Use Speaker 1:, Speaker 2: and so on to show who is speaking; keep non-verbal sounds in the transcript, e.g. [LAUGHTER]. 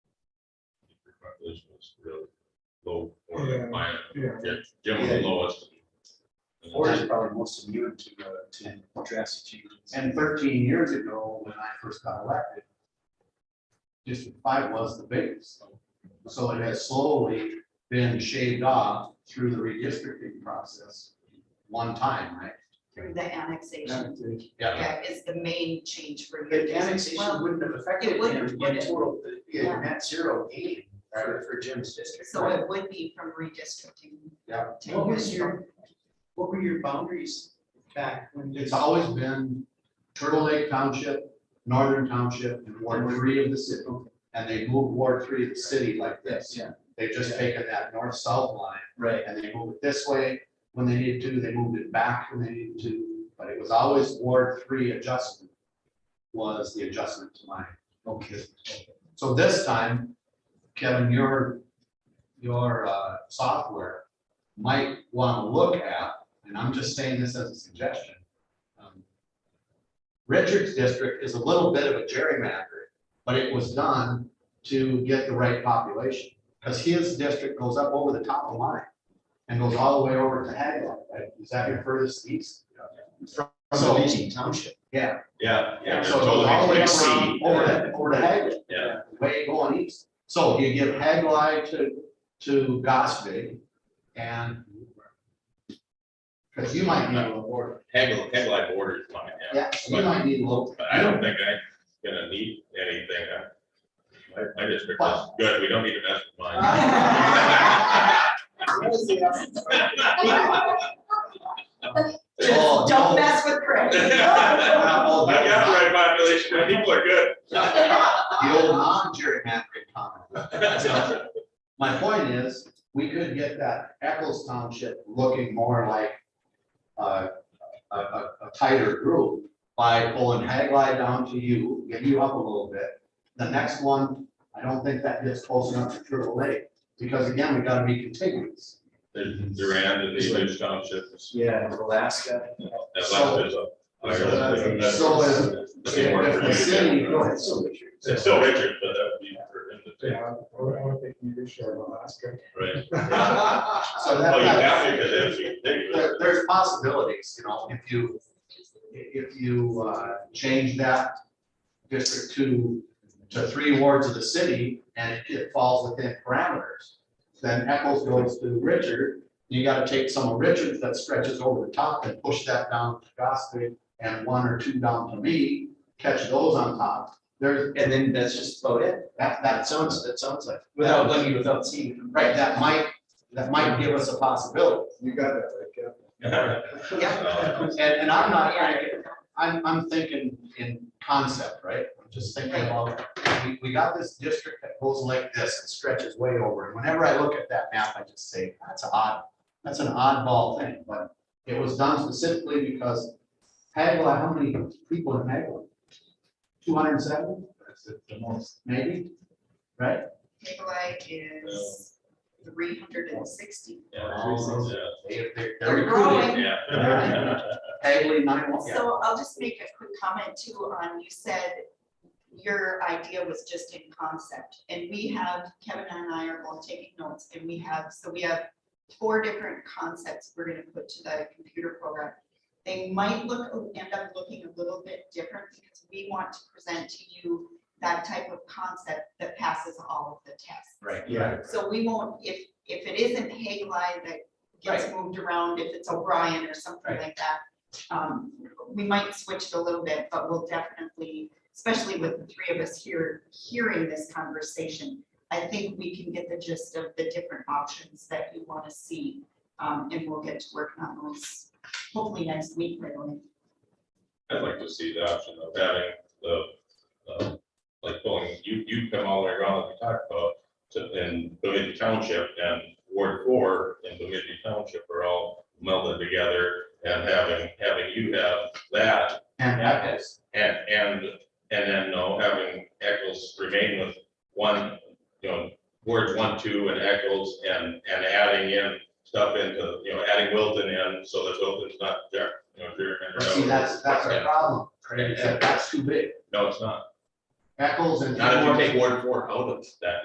Speaker 1: This was really low for
Speaker 2: Yeah.
Speaker 1: the plan,
Speaker 2: Yeah.
Speaker 1: Jim- Jim was the
Speaker 3: Yeah.
Speaker 1: lowest.
Speaker 3: Or is probably most immune to, uh, to drastic changes.
Speaker 4: And thirteen years ago, when I first got elected, District Five was the biggest. So it has slowly been shaved off through the redistricting process, one time, right?
Speaker 5: through the annexation.
Speaker 4: Yeah.
Speaker 5: Yeah, is the main change for you.
Speaker 3: The annexation
Speaker 5: Well,
Speaker 3: wouldn't have affected
Speaker 5: it
Speaker 3: it
Speaker 5: wouldn't,
Speaker 3: in
Speaker 5: would it?
Speaker 3: total, the-
Speaker 5: Yeah.
Speaker 3: yeah, net zero gain for, for Jim's district.
Speaker 5: So it would be from redistricting.
Speaker 4: Yeah.
Speaker 5: ten
Speaker 3: What was
Speaker 5: years ago.
Speaker 3: [LAUGHS] your, what were your boundaries back when? this-
Speaker 4: It's always been Turtle Lake Township, Northern Township, and Ward Three of the city. And they moved Ward Three of the city like this.
Speaker 3: Yeah.
Speaker 4: They've just taken that north-south line
Speaker 3: Right,
Speaker 4: and they moved it this way when they needed to, they moved it back when they needed to, but it was always Ward Three adjustment was the adjustment to mine.
Speaker 3: okay.
Speaker 4: So this time, Kevin, your, your uh, software might want to look at, and I'm just saying this as a suggestion. um, Richard's district is a little bit of a gerrymander, but it was done to get the right population. Because his district goes up over the top of mine and goes all the way over to Haglock, right? Is that your furthest east?
Speaker 3: So Beeching Township.
Speaker 4: Yeah.
Speaker 1: Yeah, yeah.
Speaker 4: So it
Speaker 1: totally
Speaker 4: goes all the way
Speaker 1: fixed.
Speaker 4: around over to, over to Haglock
Speaker 1: uh, Yeah,
Speaker 4: way going east. So you give Hagli to, to Gospey and because you might need a little border.
Speaker 1: Hagel, Hagel borders mine, yeah.
Speaker 4: Yeah, you might need a little.
Speaker 1: But I don't think I'm gonna need anything. huh? My, my district is good, we don't need to mess with mine.
Speaker 4: [LAUGHS]
Speaker 5: [LAUGHS]
Speaker 4: Oh,
Speaker 5: Just don't mess with
Speaker 3: [LAUGHS]
Speaker 5: Craig.
Speaker 1: I got the right population, my people are good. [LAUGHS]
Speaker 4: The old non-gerrymandering comment. So, My point is, we could get that Eccles Township looking more like uh, a, a, a tighter group by pulling Hagli down to you, get you up a little bit. The next one, I don't think that gets close enough to Turtle Lake, because again, we gotta be contiguous.
Speaker 1: There's Durand and the English townships.
Speaker 3: Yeah, Alaska.
Speaker 1: That's like there's a-
Speaker 3: So-
Speaker 4: uh, so is-
Speaker 1: That's the word
Speaker 4: If
Speaker 1: for
Speaker 4: the
Speaker 1: it.
Speaker 4: city-
Speaker 3: Go
Speaker 4: [LAUGHS]
Speaker 3: ahead, so Richard.
Speaker 1: It's still Richard, but that would be for him to take,
Speaker 2: Yeah, I would- I would think you could share Alaska.
Speaker 1: right?
Speaker 4: So [LAUGHS] that-
Speaker 1: Well, you have to, because that's ridiculous.
Speaker 4: there, there's possibilities, you know, if you, if you, uh, change that district to, to three wards of the city, and it- it falls within parameters, then Eccles goes to Richard, you gotta take some of Richard's that stretches over the top and push that down to Gospey, and one or two down to me, catch those on top, there's,
Speaker 3: And then that's just about it.
Speaker 4: that,
Speaker 3: That
Speaker 4: that's,
Speaker 3: sounds, that sounds like, without looking, without seeing.
Speaker 4: right, that might, that might give us a possibility.
Speaker 2: You got that, right, Kevin?
Speaker 1: Yeah.
Speaker 4: And, and I'm not, trying to- I'm, I'm thinking in concept, right? I'm just thinking about, we, we got this district that goes like this and stretches way over. And whenever I look at that map, I just say, that's odd, that's an oddball thing, but it was done specifically because Hagla, how many people in Hagla? Two hundred and seven,
Speaker 3: The most.
Speaker 4: maybe, right?
Speaker 5: Nikolai is three hundred and sixty.
Speaker 4: They, they're, they're
Speaker 5: They're
Speaker 4: recruiting.
Speaker 5: growing.
Speaker 1: Yeah.
Speaker 4: Hagley nine one, yeah.
Speaker 5: So I'll just make a quick comment too on, you said your idea was just in concept. And we have, Kevin and I are both taking notes and we have, so we have four different concepts we're gonna put to the computer program. They might look, end up looking a little bit different because we want to present to you that type of concept that passes all of the tests.
Speaker 4: Right,
Speaker 3: Yeah.
Speaker 5: So we won't, if, if it isn't Hagley that gets moved around, if it's O'Brien or something like that, um, we might switch it a little bit, but we'll definitely, especially with the three of us here, hearing this conversation, I think we can get the gist of the different options that you want to see, um, and we'll get to work on those hopefully next week, right away.
Speaker 1: [LAUGHS] I'd like to see the option of having the, uh, like pulling, you, you come all the way around like we talked about to, in Bemidji Township and Ward Four in Bemidji Township are all melded together and having, having you have that
Speaker 4: And Eccles.
Speaker 1: and, and, and then no, having Eccles remain with one, you know, Ward One, Two and Eccles and, and adding in stuff into, you know, adding Wilton in so that Wilton's not there, you know, if you're.
Speaker 4: But see, that's, that's our problem, right? Is that that's too big.
Speaker 1: No, it's not.
Speaker 4: Eccles and.
Speaker 1: Not if you take Ward Four out of that.